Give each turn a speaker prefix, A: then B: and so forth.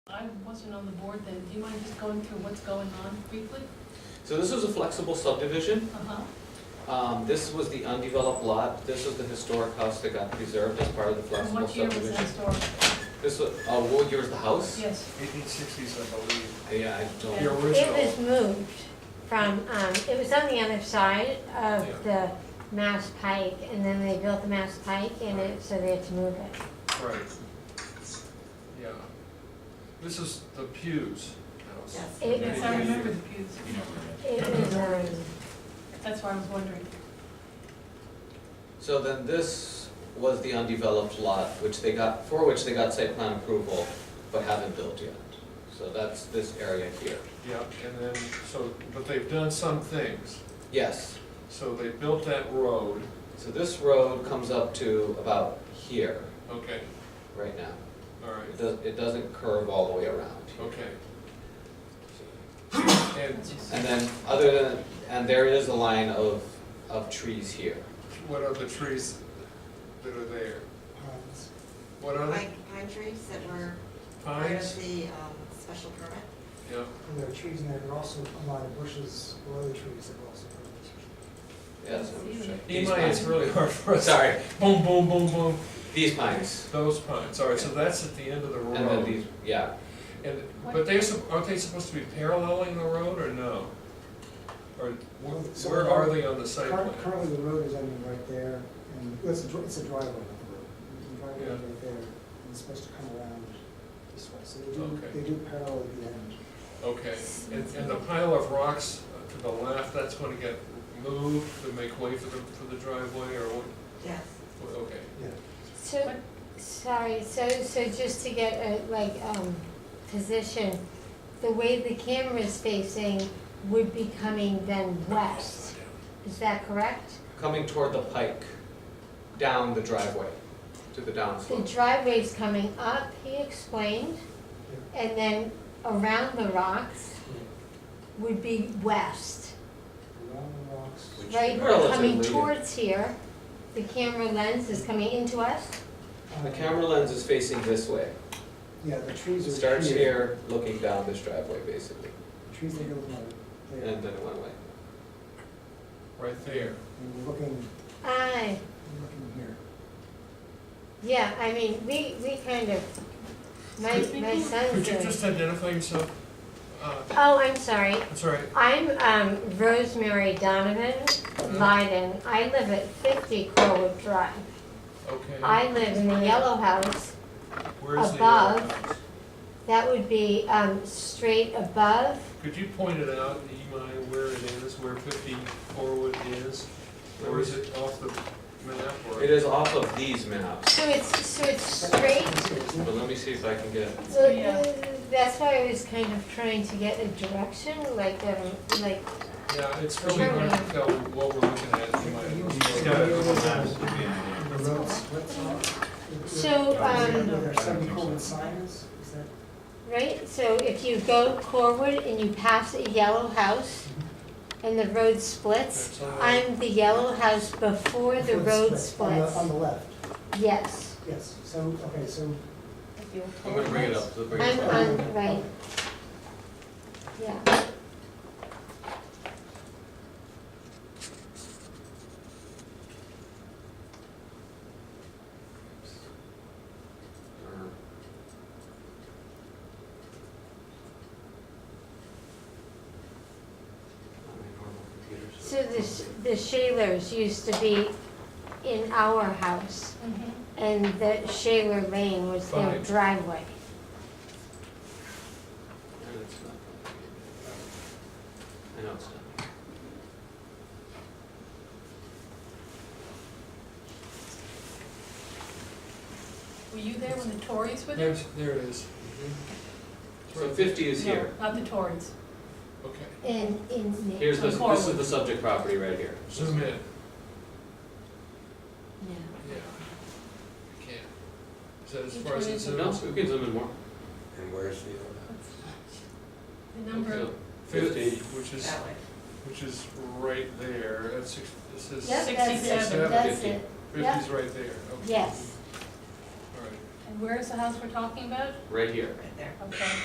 A: I wasn't on the board then, do you mind just going through what's going on briefly?
B: So this was a flexible subdivision.
A: Uh-huh,
B: Um, This was the undeveloped lot. This was the historic house that got preserved as part of the
A: and
B: flexible
A: what year was that
B: subdivision.
A: story?
B: This was, oh, what year was the house?
A: Yes,
C: Eighteen sixties, I believe.
B: Yeah, I
A: Yeah.
B: don't,
C: The
D: It
C: original.
D: was moved from, um, it was on the other side of the Mass Pike, and then they built the Mass Pike, and it, so they had to move it.
C: Right. Yeah. This is the Pews house.
D: It
A: yes,
D: was,
A: I remember the pews,
D: it was, um,
A: that's why I was wondering.
B: so then this was the undeveloped lot, which they got, for which they got site plan approval, but haven't built yet. So that's this area here.
C: Yeah, and then, so, but they've done some things.
B: Yes,
C: So they built that road,
B: so this road comes up to about here,
C: okay,
B: right now.
C: all right,
B: It does it doesn't curve all the way around.
C: okay. And
A: It's just-
B: And then, other than, and there is a line of, of trees here.
C: what are the trees that are there? What are the
E: Pine, pine trees that were part of
C: pines?
E: the um, special permit.
C: Yeah,
F: And there are trees in there, and also a lot of bushes or other trees that were also.
B: Yes. I'm sure. These
C: Imai, it's
B: pines.
C: really hard for us.
B: Sorry,
C: Boom, boom, boom, boom,
B: these pines.
C: those pines, all right, so that's at the end of the road.
B: And then these, yeah.
C: And, but they're, sup- aren't they supposed to be paralleling the road or no? Or wh-
F: Well, so
C: where are they on the site plan?
F: Current- Currently, the road is ending right there, and it's a, dri- it's a driveway, not a road. The driveway is
C: Yeah.
F: right there, and it's supposed to come around this way, so they do,
C: Okay.
F: they do parallel at the end.
C: Okay, and, and the pile of rocks to the left, that's gonna get moved to make way for the, for the driveway or what?
E: Yes.
C: what- Okay,
F: Yeah,
D: so, sorry, so, so just to get a, like, um, position, the way the camera's facing would be coming then west, is that correct?
B: Coming toward the pike, down the driveway, to the
D: The
B: downslope.
D: driveway's coming up, he explained, and then around the rocks would be west.
F: around the rocks.
D: Right, coming
B: Relatively.
D: towards here, the camera lens is coming into us,
F: Um,
B: The camera lens is facing this way.
F: Yeah, the trees
B: It
F: are.
B: starts here, looking down this driveway, basically,
F: Trees that go like there,
B: and then it went away.
C: right there.
F: and we're looking,
D: aye.
F: we're looking here.
D: Yeah, I mean, we, we kind of, my, my
C: Could
D: son's
C: you
D: in.
C: just identify yourself? Uh,
D: Oh, I'm sorry,
C: That's all right,
D: I'm, um, Rosemary Donovan
C: Mm-hmm.
D: Lyden, I live at fifty Corwood Drive.
C: okay.
D: I live in the yellow house,
C: Where's the yellow
D: above.
C: house?
D: that would be, um, straight above,
C: Could you point it out, Imai, where it is, where fifty Forwood is? Or is it off the map or?
B: It is off of these maps,
D: so it's, so it's straight
B: but let me see if I can get,
D: So uh,
A: Yeah.
D: that's why I was kind of trying to get a direction, like, um, like,
C: Yeah, it's really hard to tell what we're looking at,
F: It's
C: Imai.
F: got-
G: Well,
F: The road splits off.
D: so, um,
F: There are seven common signs, is that?
D: right, so if you go Corwood and you pass a yellow house and the road splits,
C: That's all right.
D: I'm the yellow house before the road
F: On the-
D: splits,
F: On the left,
D: yes.
F: yes, so, okay, so
A: Like the old
B: I'm gonna bring it up, so bring it
D: I'm
B: up.
D: on, right. Yeah, so the, sh- the Shalers used to be in our house
A: Mhm.
D: and the Shaler Lane was their
C: Fine.
D: driveway.
B: I know it's not.
A: Were you there when the Tories were there?
C: There's, there it is.
B: So fifty is
A: No,
B: here.
A: Not the Tories,
C: Okay,
D: And in.
B: Here's the,
A: Corwood.
B: this is the subject property right here.
C: zoom in, yeah.
D: Yeah.
C: I can't. Is that as
A: Which
C: far as
A: one
C: it
A: is it?
B: No,
C: zooms?
B: we can zoom in more.
G: And where's the other?
A: the number of
B: So
C: Fifty, which is,
E: That way.
C: which is right there, that's, six- this is,
D: Yep, that's it,
A: 67,
D: that's
B: 50.
D: it,
C: fifty's right there, okay.
D: yes.
C: All right,
A: And
E: where's the house we're talking about?
A: right here.
B: right there.
E: Okay.